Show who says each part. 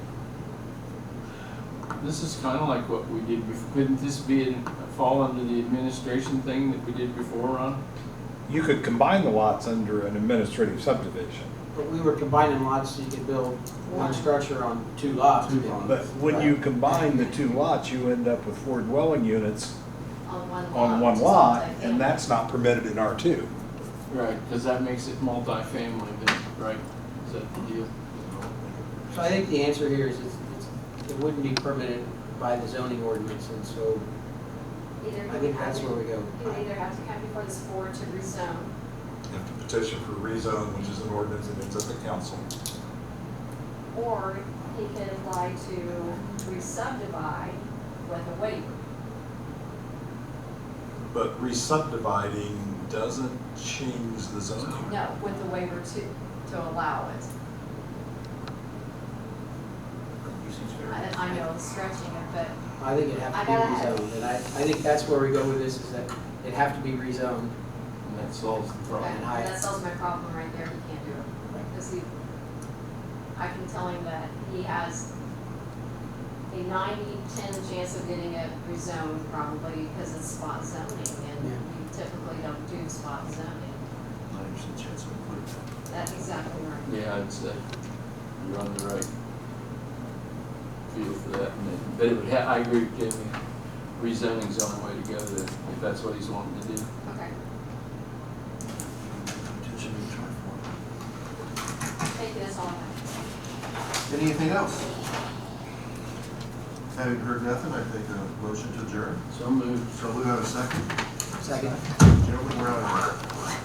Speaker 1: this is kind of like what we did before. Couldn't this be, in- fall under the administration thing that we did before, Ron?
Speaker 2: You could combine the lots under an administrative subdivision.
Speaker 3: But we were combining lots, so you could build one structure on two lots.
Speaker 1: Two lots.
Speaker 2: But when you combine the two lots, you end up with four dwelling units
Speaker 4: on one lot.
Speaker 2: on one
Speaker 4: so
Speaker 2: lot,
Speaker 4: it's like,
Speaker 2: and
Speaker 4: yeah.
Speaker 2: that's not permitted in R2.
Speaker 1: Right, because that makes it multifamily then, right? Is that the deal?
Speaker 3: So I think the answer here is it's, it's, it wouldn't be permitted by the zoning ordinance, and so
Speaker 4: Either
Speaker 3: I
Speaker 4: you
Speaker 3: think
Speaker 4: have
Speaker 3: that's
Speaker 4: to-
Speaker 3: where we go.
Speaker 4: You either have to come before this board to rezone,
Speaker 5: You have to petition for rezone, which is an ordinance that ends up at council.
Speaker 4: or he can apply to re-subdivide with a waiver.
Speaker 5: But re-subdividing doesn't change the zoning.
Speaker 4: No, with a waiver to, to allow it. I, I know it's stretching it, but
Speaker 3: I think it'd have to be
Speaker 4: I gotta-
Speaker 3: rezoned, and I, I think that's where we go with this, is that it'd have to be rezoned.
Speaker 1: And that solves the problem.
Speaker 4: that,
Speaker 3: I-
Speaker 4: that solves my problem right there, he can't do it. Cause he, I can tell him that he has a 90-10 chance of getting it rezoned probably because it's spot zoning and
Speaker 3: Yeah.
Speaker 4: you typically don't do spot zoning. That's exactly right.
Speaker 1: Yeah, I'd say you're on the right field for that. and it- But it would, ha- I agree with Jamie, rezoning's the only way to go there, if that's what he's wanting to do.
Speaker 4: Okay, thank you, that's all I have.
Speaker 6: Anything else? Having heard nothing, I think a motion to adjourn.
Speaker 1: So moved.
Speaker 6: So we have a second.
Speaker 3: Second.
Speaker 6: Gentlemen, we're out of here.